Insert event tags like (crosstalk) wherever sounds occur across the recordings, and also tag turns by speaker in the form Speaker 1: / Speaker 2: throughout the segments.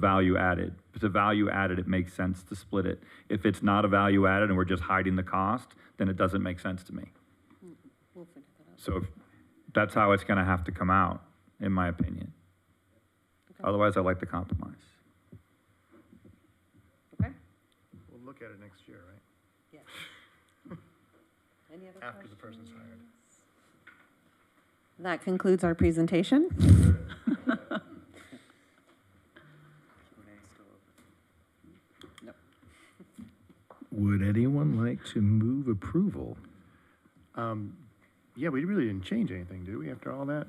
Speaker 1: value added. If it's a value added, it makes sense to split it. If it's not a value added and we're just hiding the cost, then it doesn't make sense to me.
Speaker 2: We'll figure that out.
Speaker 1: So if- that's how it's gonna have to come out, in my opinion.
Speaker 2: Okay.
Speaker 1: Otherwise, I like the compromise.
Speaker 2: Okay?
Speaker 3: We'll look at it next year, right?
Speaker 2: Yeah. Any other
Speaker 3: After the
Speaker 2: questions?
Speaker 3: person's hired.
Speaker 2: That concludes our
Speaker 3: (laughs)
Speaker 2: presentation.
Speaker 4: Would anyone like to move approval?
Speaker 3: Um, yeah, we really didn't change anything, did we, after all that?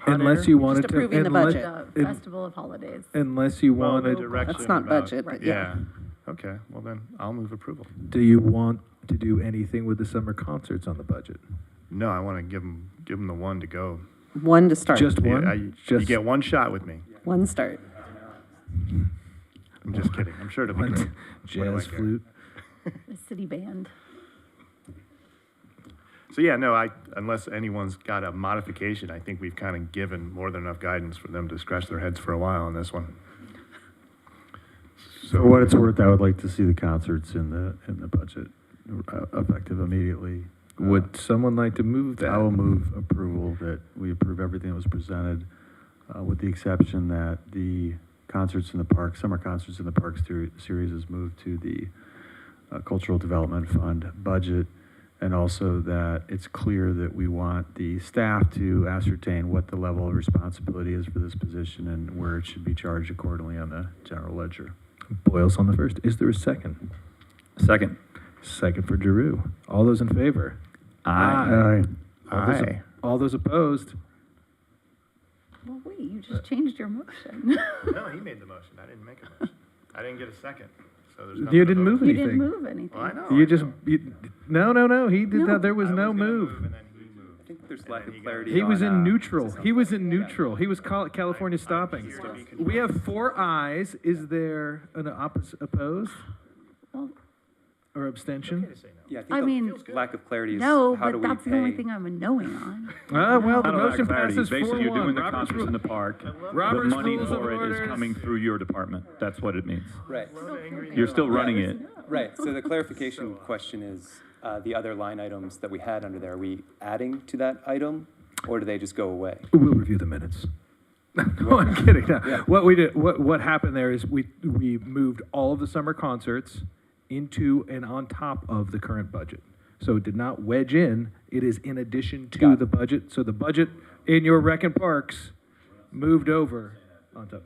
Speaker 3: Hot
Speaker 4: Unless
Speaker 3: air?
Speaker 4: you wanted to.
Speaker 2: approving the
Speaker 4: unless-
Speaker 2: budget.
Speaker 5: the
Speaker 4: in-
Speaker 5: uh, festival of holidays.
Speaker 4: Unless you
Speaker 3: Well, the
Speaker 4: wanted,
Speaker 3: direction.
Speaker 2: That's not
Speaker 3: about-
Speaker 2: budget, but yeah.
Speaker 3: Yeah, okay, well then, I'll move approval.
Speaker 4: do you want to do anything with the summer concerts on the budget?
Speaker 3: No, I wanna give them, give them the one to go.
Speaker 2: One to start.
Speaker 4: Just
Speaker 3: Yeah, I-
Speaker 4: one?
Speaker 3: You
Speaker 4: Just
Speaker 3: get one shot with me.
Speaker 2: One start.
Speaker 3: I'm just kidding, I'm sure it'll be
Speaker 4: one
Speaker 3: great. What do I
Speaker 4: Jazz
Speaker 3: care?
Speaker 4: flute?
Speaker 5: The city band.
Speaker 3: So yeah, no, I, unless anyone's got a modification, I think we've kinda given more than enough guidance for them to scratch their heads for a while on this one.
Speaker 6: For what it's worth, I would like to see the concerts in the, in the budget, uh, effective immediately. Uh,
Speaker 4: Would someone like to move that?
Speaker 6: I will move approval that we approve everything that was presented, uh, with the exception that the concerts in the park, summer concerts in the park ser- series is moved to the uh, Cultural Development Fund budget. And also that it's clear that we want the staff to ascertain what the level of responsibility is for this position and where it should be charged accordingly on the general ledger.
Speaker 4: Boyle's on the first. Is there a second?
Speaker 1: Second.
Speaker 4: Second for Giroux. All those in favor? Ah.
Speaker 1: Aye.
Speaker 4: All those-
Speaker 3: Aye.
Speaker 4: All those opposed?
Speaker 5: Well, wait, you just changed your motion.
Speaker 3: No, he made the motion. I didn't make a motion. I didn't get a second. So there's
Speaker 4: You
Speaker 3: nothing to
Speaker 4: didn't
Speaker 3: vote
Speaker 4: move
Speaker 3: on.
Speaker 5: You
Speaker 4: it.
Speaker 5: didn't
Speaker 4: Anything.
Speaker 5: move anything.
Speaker 3: Well, I know. I
Speaker 4: You just,
Speaker 3: know.
Speaker 4: you, no, no, no, he did
Speaker 5: No.
Speaker 4: not, there was
Speaker 3: I
Speaker 4: no
Speaker 3: gonna
Speaker 4: move.
Speaker 3: and then he moved.
Speaker 1: I think there's
Speaker 3: And lack then of he got- clarity
Speaker 4: He was in
Speaker 1: uh,
Speaker 4: neutral. He was in neutral. He was cal- California stopping.
Speaker 3: here to be confirmed.
Speaker 4: We have four ayes. Is there an oppos- opposed
Speaker 5: Well,
Speaker 4: or
Speaker 3: Okay
Speaker 4: abstention?
Speaker 3: to say no.
Speaker 7: Yeah, I
Speaker 5: I
Speaker 7: think
Speaker 5: mean-
Speaker 7: the lack of clarity is
Speaker 5: no,
Speaker 7: how do
Speaker 5: but
Speaker 7: we
Speaker 5: that's the only
Speaker 7: pay?
Speaker 5: thing I'm a knowing on.
Speaker 4: Ah, well, the
Speaker 1: Not a lack
Speaker 4: motion
Speaker 1: of clarity.
Speaker 4: passes
Speaker 1: Basically,
Speaker 4: four
Speaker 1: you're doing
Speaker 4: one.
Speaker 1: the
Speaker 4: Robert's
Speaker 1: concerts in
Speaker 4: rule.
Speaker 1: the park. The
Speaker 4: Robert's
Speaker 1: money
Speaker 4: rules of
Speaker 1: for it is
Speaker 4: orders.
Speaker 1: coming through your department. That's (laughs) what it means.
Speaker 7: Right,
Speaker 1: You're still running it.
Speaker 7: right.
Speaker 5: (laughs)
Speaker 7: So the clarification question is, uh, the other line items that we had under there, are we adding to that item? Or do they just go away?
Speaker 4: We'll review the minutes. (laughs) No, I'm kidding. No. What we did, what, what happened there is we, we moved all of the summer concerts into and on top of the current budget. So it did not wedge in, it is in addition
Speaker 7: Got
Speaker 4: to
Speaker 7: it.
Speaker 4: the budget. So the budget in your rec and parks moved over on top.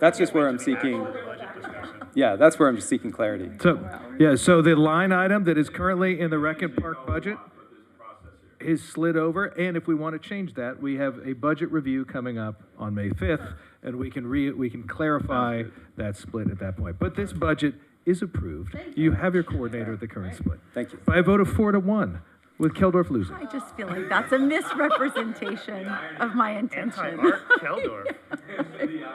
Speaker 7: That's just where I'm seeking. Yeah, that's where I'm just seeking clarity.
Speaker 4: So, yeah, so the line item that is currently in the rec and park budget is slid over, and if we want to change that, we have a budget review coming up on May 5th, and we can re, we can clarify that split at that point. But this budget is approved. You have your coordinator at the current split.
Speaker 7: Thank you.
Speaker 4: By a vote of four to one, with Keldorf losing.
Speaker 5: I just feel like that's a misrepresentation of my intention.
Speaker 3: Anti-Mark Keldorf. Yeah.
Speaker 5: (laughs)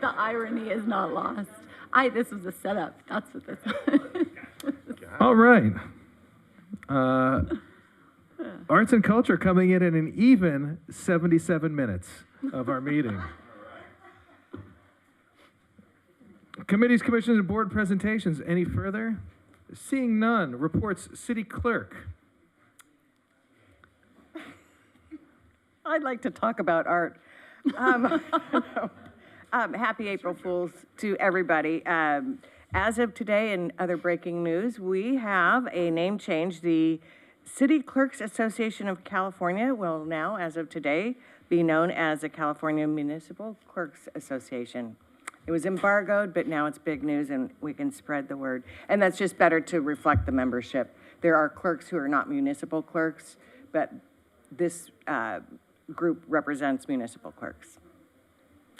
Speaker 5: The irony is not lost. I, this was a setup. That's what this was.
Speaker 4: All right. Uh, arts and culture coming in at an even 77 minutes of our meeting. Committees, commissions, and board presentations. Any further? Seeing none, reports city clerk.
Speaker 8: I'd like to talk about art. Um, (laughs) um, happy April Fools to everybody. Um, as of today, and other breaking news, we have a name change. The City Clerks Association of California will now, as of today, be known as the California Municipal Clerks Association. It was embargoed, but now it's big news and we can spread the word. And that's just better to reflect the membership. There are clerks who are not municipal clerks, but this uh, group represents municipal clerks.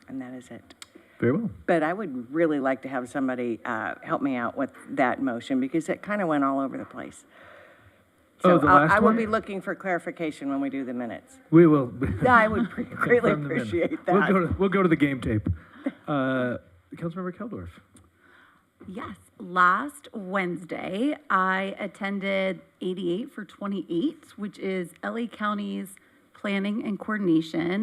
Speaker 8: And that is it.
Speaker 4: Very well.
Speaker 8: But I would really like to have somebody uh, help me out with that motion because it kind of went all over the place.
Speaker 4: Oh,
Speaker 8: So
Speaker 4: the
Speaker 8: I'll-
Speaker 4: last
Speaker 8: I will
Speaker 4: one?
Speaker 8: be looking for clarification when we do the minutes.
Speaker 4: We will. (laughs)
Speaker 8: I would pre- greatly
Speaker 4: From the minute.
Speaker 8: appreciate
Speaker 4: We'll go,
Speaker 8: that.
Speaker 4: to, we'll go to the game tape. Uh, Councilmember Keldorf.
Speaker 5: Yes, last Wednesday, I attended 88 for 28, which is LA County's planning and coordination